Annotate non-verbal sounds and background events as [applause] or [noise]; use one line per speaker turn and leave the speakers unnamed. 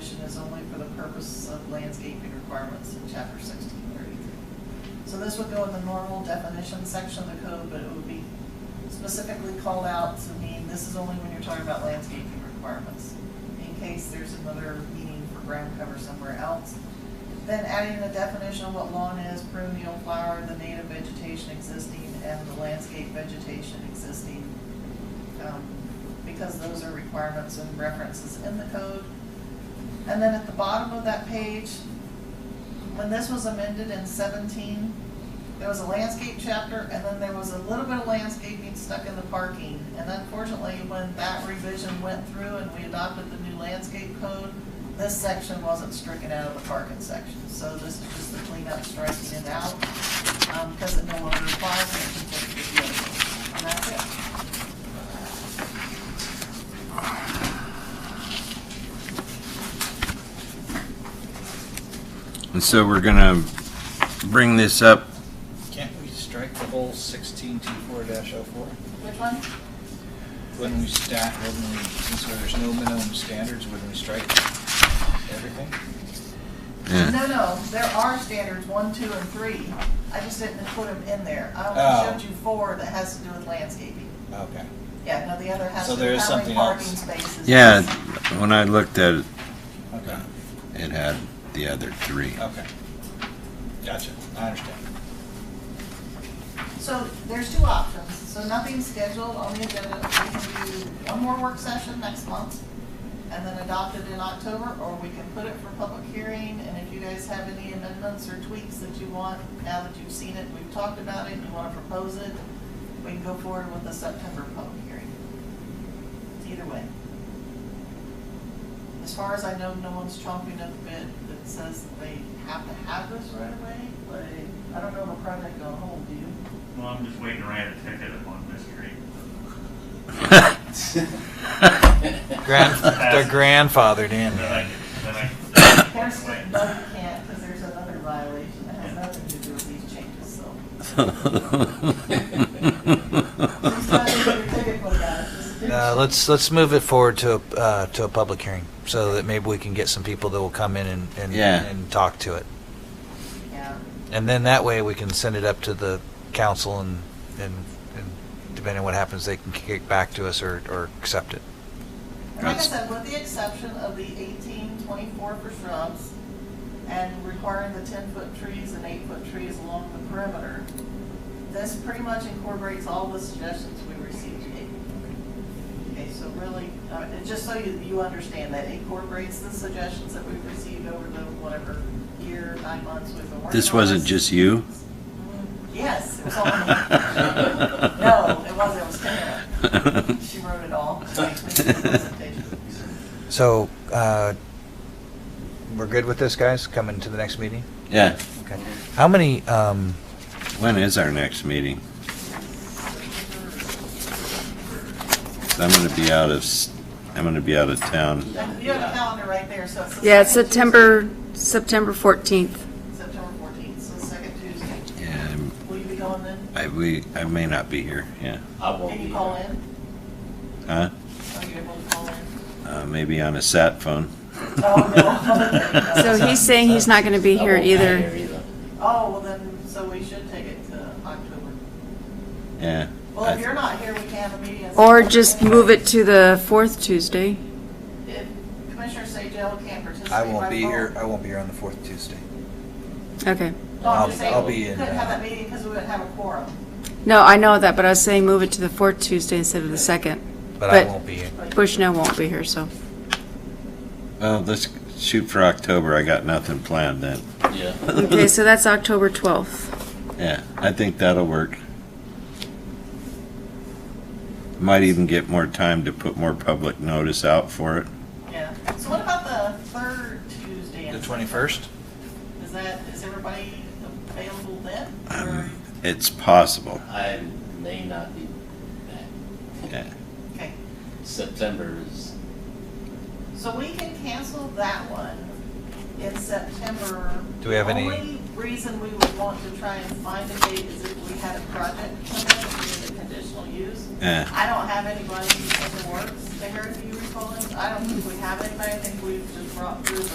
purpose of landscaping requirements in chapter sixteen thirty-three. So this would go in the normal definition section of the code, but it would be specifically called out to mean this is only when you're talking about landscaping requirements. In case there's another meaning for ground cover somewhere else. Then adding the definition of what lawn is, perennial flower, the native vegetation existing, and the landscape vegetation existing. um, Because those are requirements and references in the code. And then at the bottom of that page, when this was amended in seventeen, there was a landscape chapter, and then there was a little bit of landscaping stuck in the parking. And unfortunately, when that revision went through and we adopted the new landscape code, this section wasn't stricken out of the parking section. So this is just the cleanup striking it out, um, because it no longer applies and it conflicts with the other. And that's it.
And so we're gonna bring this up,
Can't we strike the whole sixteen two four dash oh four?
Which one?
Wouldn't we stat, wouldn't we, since there's no minimum standards, wouldn't we strike everything?
yeah,
No, no, there are standards, one, two, and three. I just didn't put them in there. I
Oh.
only showed you four that has to do with landscaping.
Okay.
Yeah, no, the other has
So
to
there
do
is
how many
something
parking
else.
spaces.
yeah, when I looked at it,
Okay,
it had the other three.
okay. Gotcha, I understand.
So there's two options. So nothing scheduled on the agenda. We can do one more work session next month and then adopt it in October, or we can put it for public hearing. And if you guys have any amendments or tweaks that you want, now that you've seen it, we've talked about it, you want to propose it, we can go forward with the September public hearing. Either way. As far as I know, no one's chomping at the bit that says they have to have this right away, but I don't know if a project will hold, do you?
Well, I'm just waiting to write a ticket on this street.
Grand,
they're
grandfathered
Then I, then I.
[coughs] There's
Wait.
still, no, you can't, because there's another violation that has nothing to do with these changes, so. Just let me get a ticket put out, just do-
[laughs] Uh, let's, let's move it forward to, a uh, to a public hearing, so that maybe we can get some people that will come in and, and,
Yeah.
and talk to it.
Yeah,
And then that way, we can send it up to the council and, and, and depending on what happens, they can kick it back to us or, or accept it.
and like I
That's-
said, with the exception of the eighteen twenty-four for shrubs and requiring the ten-foot trees and eight-foot trees along the perimeter, this pretty much incorporates all the suggestions we received today. Okay, so really, uh, and just so you, you understand that it incorporates the suggestions that we've received over the whatever year, nine months we've been working on.
[laughs] This wasn't just you? [laughs]
Mm, Yes, it was all me. No, it wasn't, it was Tara. She wrote it
[laughs]
all.
So, uh, we're good with this, guys, coming to the next meeting?
Yeah,
Okay. How many, um,
when is our next meeting? 'Cause I'm gonna be out of, s- I'm gonna be out of town.
You have a calendar right there, so it's. the
Yeah, it's
second Tuesday,
September, September 14th.
September fourteenth, so the second Tuesday.
Yeah, I'm-
Will you be going then?
I, we, I may not be here, yeah.
I won't
Can
be
you call
here.
in?
Huh?
Are you able to call in?
Uh, maybe on a sat phone.
Oh,
[laughs]
no.
So he's saying he's not going to be
I
here
won't
either.
Oh, well then, so we should take it to October.
Yeah.
Well, if you're not here, we can have a meeting. in
Or
September
just
anyway.
move it to the fourth Tuesday.
If Commissioner Sajal can't participate by
I won't be here,
phone-
I won't be here on the fourth Tuesday.
No,
Okay.
I'm just
I'll-
saying
I'll
we
be in,
Couldn't have
uh,
that meeting because we wouldn't have a quorum.
No, I know that, but I was saying move it to the fourth Tuesday instead of the second.
But I
But-
won't be here.
Bushnell won't be here, so.
Well, let's shoot for October. I got nothing planned then.
Yeah.
Okay, so that's October 12th.
[laughs] Yeah, I think that'll work. Might even get more time to put more public notice out for it.
Yeah. So what about the third Tuesday? in
The
September?
twenty-first?
Is that, is everybody available then? Or-
Um, it's possible.
I may not be back.
Yeah.
Okay,
September is,
so we can cancel that one in September.
Do we have any-
The only reason we would want to try and find a date is if we had a project come in with a conditional use.
Uh-huh.
Yeah.
I don't have anybody in the works, Barry, do you recall? it? I don't think we have anybody, I think we've just brought through